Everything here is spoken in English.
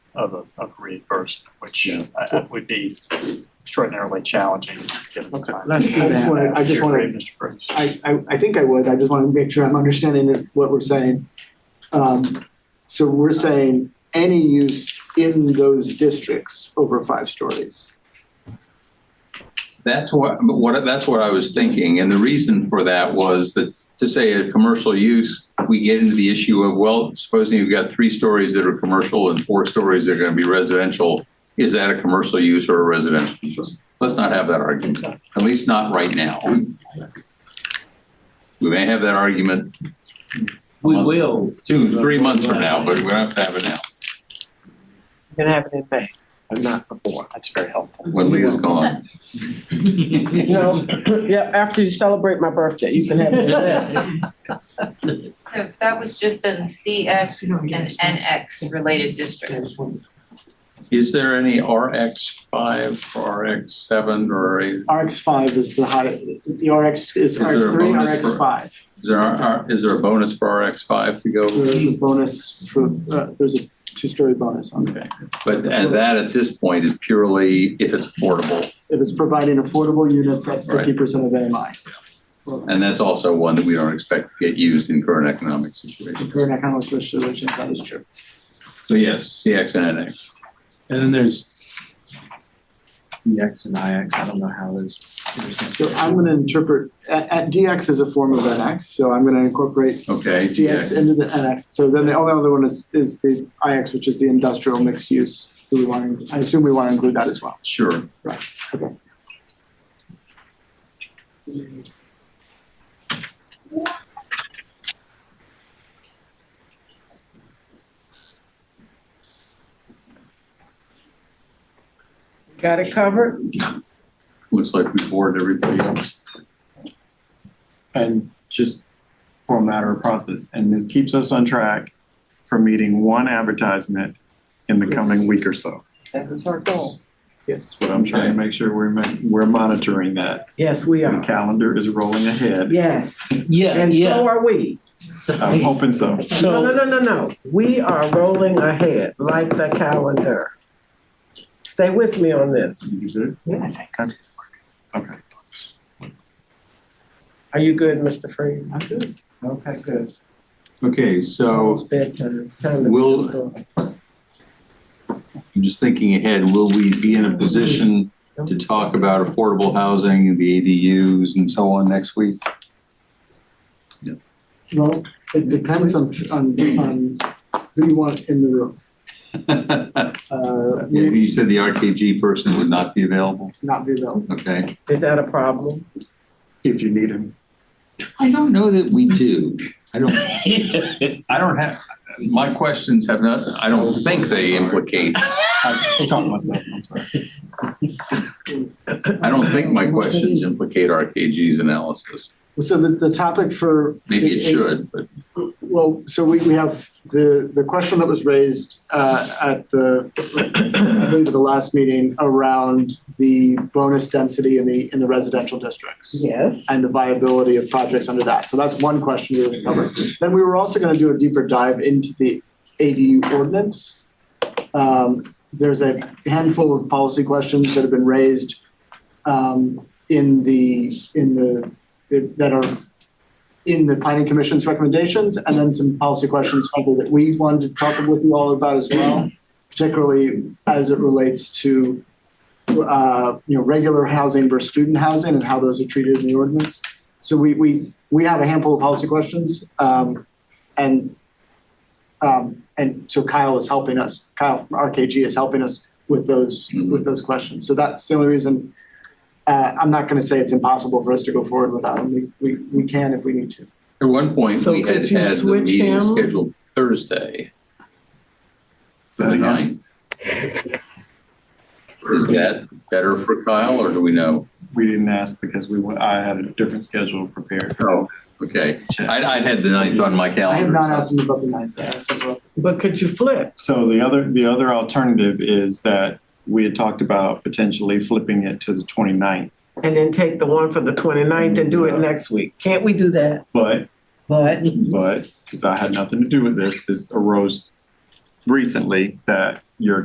of, a- of reimbursement, which Yeah. I- I would be extraordinarily challenging given the Okay, time. let's do I just that. wanna- I just Sure. want to, Mr. Cruz. I, I, I think I would, I just want to make sure I'm understanding if- what we're saying. Um, so we're saying any use in those districts over five stories. That's what, but what, that's what I was thinking, and the reason for that was that, to say a commercial use, we get into the issue of, well, supposing you've got three stories that are commercial and four stories that are gonna be residential, is that a commercial use or a residential use? Let's not have that argument, at least not right now. We may have that argument We will. two, three months from now, but we don't have to have it now, We're gonna have it in May, not before. That's very helpful. when Leah's gone. You know, yeah, after you celebrate my birthday, you can have it in May. So that was just in CX and NX related districts. Is there any RX five, RX seven, or a RX five is the high, the RX is there a RX three, bonus RX for- five. Is there, are- is there a bonus for RX five to go? There is a bonus for, uh, there's a two-story bonus on it. Okay, but, and that at this point is purely if it's affordable, If it's providing affordable units at Right. fifty percent of AMI. Well, and that's also one that we don't expect to get used in current economic the situations. Current economic situation, that is true. So yes, CX and NX. And then there's DX and IX, I don't know how those. So I'm gonna interpret, at, at DX is a form of NX, so I'm gonna incorporate Okay, GX DX, into the NX. So then the only other one is, is the IX, which is the industrial mixed use. Do we want, to- I assume we want to include that as well. sure. Got it covered? Looks like we bored everybody else. And just for a matter of process, and this keeps us on track for meeting one advertisement in the coming week or so. That is our goal. Yes. But I'm trying to make sure we're, ma- we're monitoring that. Yes, we The are. calendar is rolling ahead. Yes, Yeah, and yeah. so are we. I'm hoping so. No, no, So, no, no, no. We are rolling ahead like the calendar. Stay with me on this. Okay. Are you good, Mr. Freeman? I'm good. Okay, good. Okay, so It's bedtime. Time to be We'll- restored. I'm just thinking ahead, will we be in a position to talk about affordable housing, the ADUs and so on next week? Well, it depends on, on, on who you want in the room. Uh, may You said the RKG person would not be available, not be available. okay? Is that a problem? If you need him. I don't know that we do. I don't, I don't have, my questions have not, I don't think they implicate, I caught myself, I'm sorry. I don't think my questions implicate RKG's analysis. So the, the topic for. Maybe it should, but Well, so we, we have the, the question that was raised uh, at the, I believe at the last meeting around the bonus density in the, in the residential districts. Yes. and the viability of projects under that. So that's one question we were covering. Then we were also gonna do a deeper dive into the ADU ordinance. Um, there's a handful of policy questions that have been raised um, in the, in the, that are in the planning commission's recommendations, and then some policy questions probably that we wanted to talk with you all about as well, particularly as it relates to uh, you know, regular housing versus student housing and how those are treated in the ordinance. So we, we, we have a handful of policy questions, um, and, um, and so Kyle is helping us, Kyle from RKG is helping us with those, with those questions. So that's the only reason, uh, I'm not gonna say it's impossible for us to go forward without them. We, we, we can if we need to. at one point, So we had could you had the switch meeting him? scheduled Thursday, Is that the Uh-huh. enough? ninth. Is that better for Kyle, or do we know? We didn't ask because we, wa- I had a different schedule prepared. Oh. Okay, I, I had the ninth on my I calendar. have not so- asked him about the ninth, I asked him about, But could you flip? So the other, the other alternative is that we had talked about potentially flipping it to the 29th, And then take the one for the 29th and do it next week. Can't we do that? but, But but, because I had nothing to do with this, this arose recently that